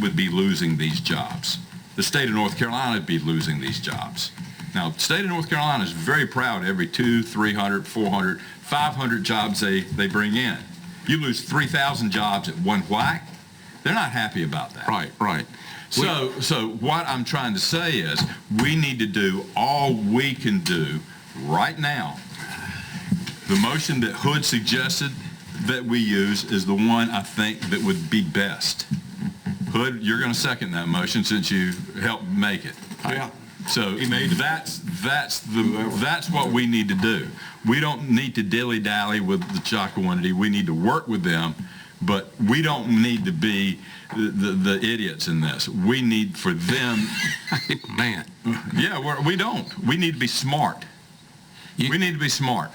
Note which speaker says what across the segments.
Speaker 1: would be losing these jobs. The state of North Carolina would be losing these jobs. Now, the state of North Carolina is very proud every two, 300, 400, 500 jobs they, they bring in. You lose 3,000 jobs at one whack, they're not happy about that.
Speaker 2: Right, right.
Speaker 1: So, so what I'm trying to say is, we need to do all we can do right now. The motion that Hood suggested that we use is the one I think that would be best. Hood, you're going to second that motion since you helped make it.
Speaker 2: Yeah.
Speaker 1: So that's, that's the, that's what we need to do. We don't need to dilly-dally with the Chocowinity. We need to work with them, but we don't need to be the, the the idiots in this. We need for them,
Speaker 2: Man,
Speaker 1: yeah, we're, we don't. We need to be smart.
Speaker 2: You-
Speaker 1: We need to be smart.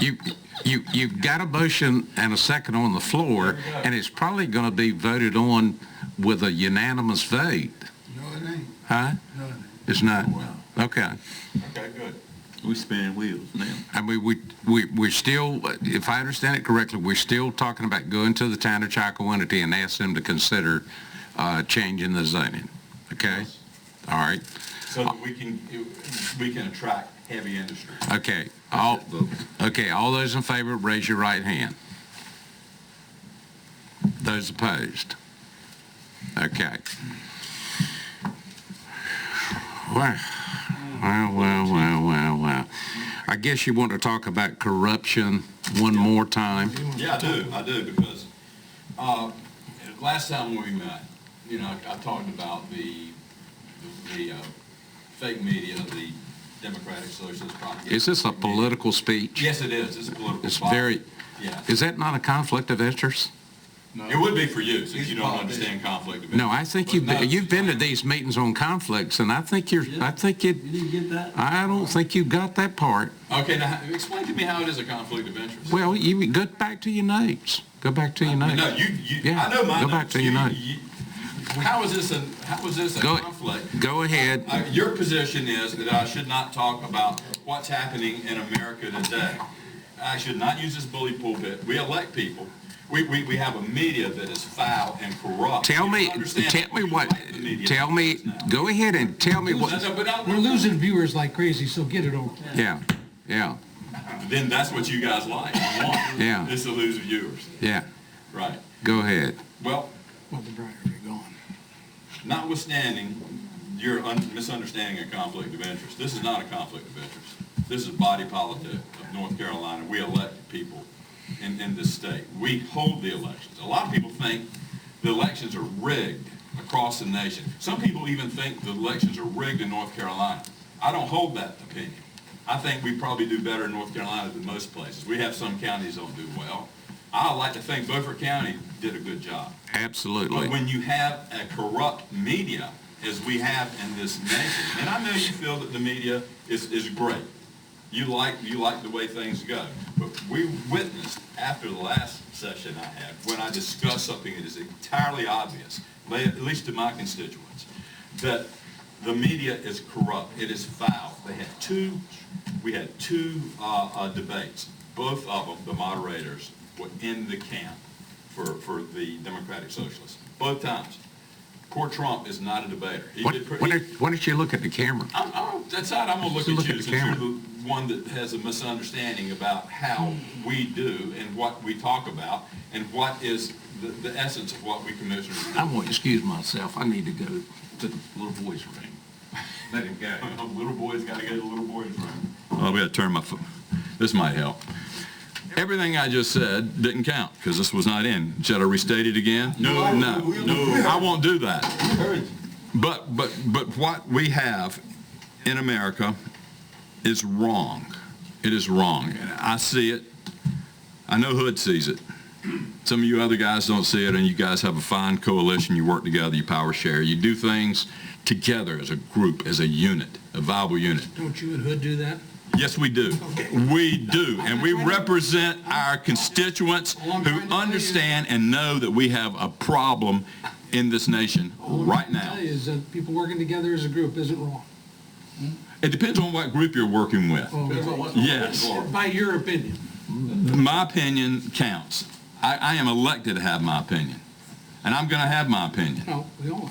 Speaker 2: you, you, you've got a motion and a second on the floor, and it's probably going to be voted on with a unanimous vote,
Speaker 3: No, it ain't.
Speaker 2: huh?
Speaker 3: No, it ain't.
Speaker 2: It's not? Okay.
Speaker 1: Okay, good. We spinning wheels now.
Speaker 2: I mean, we, we, we're still, if I understand it correctly, we're still talking about going to the town of Chakawinity and ask them to consider, uh, changing the zoning, okay? All right,
Speaker 1: So that we can, we can attract heavy industry.
Speaker 2: okay,
Speaker 1: Oh,
Speaker 2: all, okay, all those in favor, raise your right hand. Those opposed? Okay. Well, well, well, well, well, well. I guess you want to talk about corruption one more time?
Speaker 1: Yeah, I do, I do, because, uh, last time we met, you know, I talked about the, the, uh, fake media, the Democratic Socialist propaganda.
Speaker 2: Is this a political speech?
Speaker 1: Yes, it is, it's a political.
Speaker 2: It's
Speaker 1: spot.
Speaker 2: very,
Speaker 1: Yeah,
Speaker 2: is that not a conflict of interest?
Speaker 1: it would be for you, since
Speaker 3: It's
Speaker 1: you don't
Speaker 3: politics.
Speaker 1: understand conflict of interest.
Speaker 2: No, I think you've, been- you've been to these meetings on conflicts, and I think you're, I think it,
Speaker 3: You didn't get that?
Speaker 2: I don't think you got that part.
Speaker 1: Okay, now, explain to me how it is a conflict of interest.
Speaker 2: Well, you, go back to your notes. Go back to your
Speaker 1: No,
Speaker 2: notes.
Speaker 1: you, you,
Speaker 2: Yeah,
Speaker 1: I know my
Speaker 2: go back
Speaker 1: notes.
Speaker 2: to your
Speaker 1: You-
Speaker 2: note.
Speaker 1: you- How is this a, how is this a
Speaker 2: Go-
Speaker 1: conflict?
Speaker 2: Go ahead.
Speaker 1: Uh, Your position is that I should not talk about what's happening in America today. I should not use this bully pulpit. We elect people. We, we, we have a media that is foul and corrupt.
Speaker 2: Tell
Speaker 1: You don't
Speaker 2: me,
Speaker 1: understand
Speaker 2: tell me
Speaker 1: you
Speaker 2: what,
Speaker 1: like the media.
Speaker 2: tell me, go ahead and tell me
Speaker 1: No,
Speaker 2: what,
Speaker 1: no, but I-
Speaker 4: We're losing viewers like crazy, so get it over.
Speaker 2: yeah, yeah,
Speaker 1: Then that's what you guys like. and want.
Speaker 2: Yeah.
Speaker 1: It's to lose viewers.
Speaker 2: yeah.
Speaker 1: Right.
Speaker 2: Go ahead.
Speaker 1: Well,
Speaker 4: Well, the brighter you're going.
Speaker 1: notwithstanding your un- misunderstanding of conflict of interest, this is not a conflict of interest. This is body politic of North Carolina. We elect people in, in this state. We hold the elections. A lot of people think the elections are rigged across the nation. Some people even think the elections are rigged in North Carolina. I don't hold that opinion. I think we probably do better in North Carolina than most places. We have some counties don't do well. I like to think Beaufort County did a good job. But
Speaker 2: Absolutely.
Speaker 1: when you have a corrupt media, as we have in this nation, and I know you feel that the media is, is great. You like, you like the way things go. But we witnessed after the last session I had, when I discussed something that is entirely obvious, la- at least to my constituents, that the media is corrupt. It is foul. They had two, we had two uh, uh, debates. Both of them, the moderators, were in the camp for, for the Democratic Socialists. Both times. Poor Trump is not a debater. He
Speaker 2: Why
Speaker 1: did pre-
Speaker 2: why don't why don't you look at the camera?
Speaker 1: I'm, I'm, that's not, I'm gonna look
Speaker 2: Just
Speaker 1: at
Speaker 2: look
Speaker 1: you
Speaker 2: at the
Speaker 1: since you're
Speaker 2: camera.
Speaker 1: the one that has a misunderstanding about how we do and what we talk about and what is the, the essence of what we commissioners do.
Speaker 5: I'm going to excuse myself. I need to go to the little boy's room. Let him go.
Speaker 1: A little boy's gotta go to the little boy's room. I'm gonna turn my phone, this might help. Everything I just said didn't count, because this was not in. Should I restate it again? No. No, no, I won't do that. But, but, but what we have in America is wrong. It is wrong. And I see it. I know Hood sees it. Some of you other guys don't see it, and you guys have a fine coalition. You work together, you power share, you do things together as a group, as a unit, a viable unit.
Speaker 4: Don't you and Hood do that?
Speaker 1: Yes, we do. We do, and we represent our constituents who understand and know that we have a problem in this nation right
Speaker 4: What
Speaker 1: now.
Speaker 4: I tell you is that people working together as a group isn't wrong.
Speaker 1: It depends on what group you're working with. Yes.
Speaker 4: By your opinion.
Speaker 1: My opinion counts. I, I am elected to have my opinion.
Speaker 6: and I'm gonna have my opinion.
Speaker 1: No, we all are.